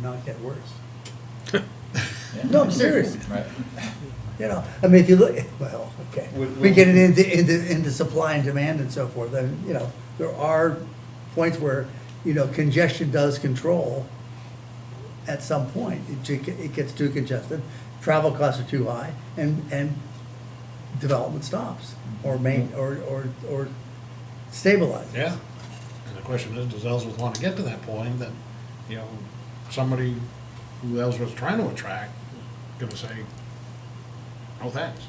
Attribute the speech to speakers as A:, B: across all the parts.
A: not get worse.
B: Yeah.
A: No, I'm serious.
B: Right.
A: You know, I mean, if you look, well, okay, we
B: We- we-
A: get it into, into, into supply and demand and so forth, then, you know, there are points where, you know, congestion does control at some point, it, ju- it gets too congested, travel costs are too high, and, and development stops, or main, or, or, or stabilizes.
C: Yeah, and the question is, does Ellsworth want to get to that point that, you know, somebody who Ellsworth's trying to attract, gonna say, no thanks.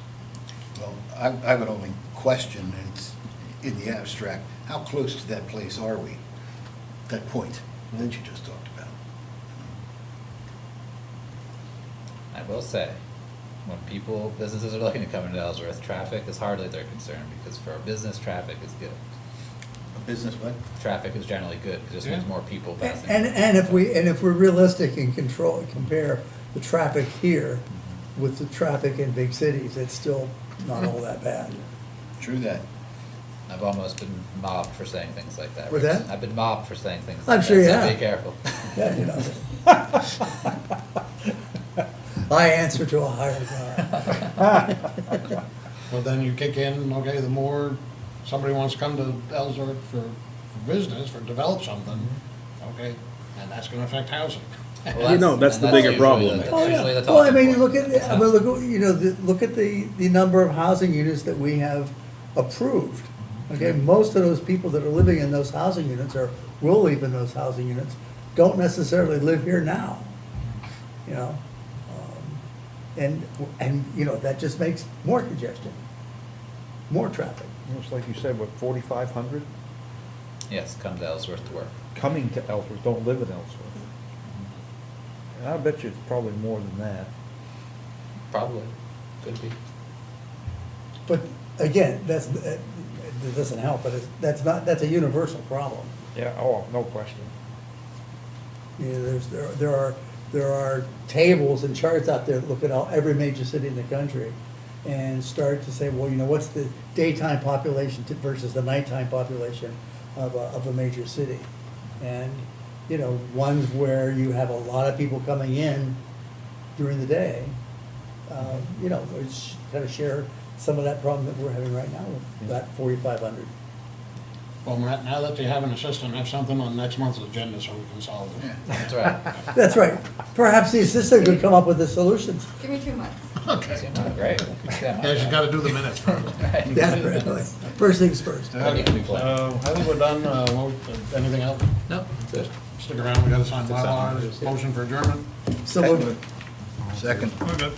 D: Well, I, I would only question, it's in the abstract, how close to that place are we? That point that you just talked about?
B: I will say, when people, businesses are looking to come into Ellsworth, traffic is hardly their concern, because for a business, traffic is good.
D: A business what?
B: Traffic is generally good, because it just means
C: Yeah.
B: more people passing.
A: And, and if we, and if we're realistic and control, compare the traffic here with the traffic in big cities, it's still not all that bad.
D: True that.
B: I've almost been mobbed for saying things like that.
A: What's
B: Rich.
A: that?
B: I've been mobbed for saying things
A: I'm
B: like
A: sure
B: that,
A: you
B: so
A: have.
B: Be careful.
A: Yeah, you know. I answer to a higher power.
C: But then you kick in, okay, the more somebody wants to come to Ellsworth for for business, for develop something, okay, and that's gonna affect housing.
B: Well,
C: Well,
E: You know, that's
B: and
E: the bigger
B: usually
E: problem.
B: the-
A: Oh,
B: that's
A: yeah.
B: usually the
A: Well, I
B: talking
A: mean, you
B: point.
A: look at, I mean, look, at- you know, the, look at the, the number of housing units that we have approved. Okay,
B: Mm-hmm.
A: most of those people that are living in those housing units or will live in those housing units don't necessarily live here now, you know? Um, And, and, you know, that just makes more congestion, more traffic.
F: It's like you said, what, forty-five hundred
B: Yes, come to Ellsworth to work.
F: coming to Ellsworth, don't live in Ellsworth. And I bet you it's probably more than that.
B: Probably, could be.
A: But again, that's, that that doesn't help, but it's, that's not, that's a universal problem.
F: Yeah, oh, no question.
A: You know, there's, there there are, there are tables and charts out there that look at all, every major city in the country and start to say, well, you know, what's the daytime population to- versus the nighttime population of a, of a major city? And, you know, ones where you have a lot of people coming in during the day, uh, you know, which kind of share some of that problem that we're having right now with that forty-five hundred.
C: Matt, now that you have an assistant, have something on next month's agenda so we can solve it.
B: That's right.
A: That's right. Perhaps the assistant could come up with the solutions.
G: Give me two months.
C: Okay.
B: Right.
C: Yeah, she's gotta do the minutes first.
A: Yeah, really. First things first.
B: Then you can be playing.
C: Uh, I think we're done, uh, well, anything else?
B: No, that's
C: uh,
B: it.
C: Stick around, we gotta sign
F: That's
C: bylaws,
F: it.
C: motion for adjournment.
A: So,
D: Second.
C: We're good.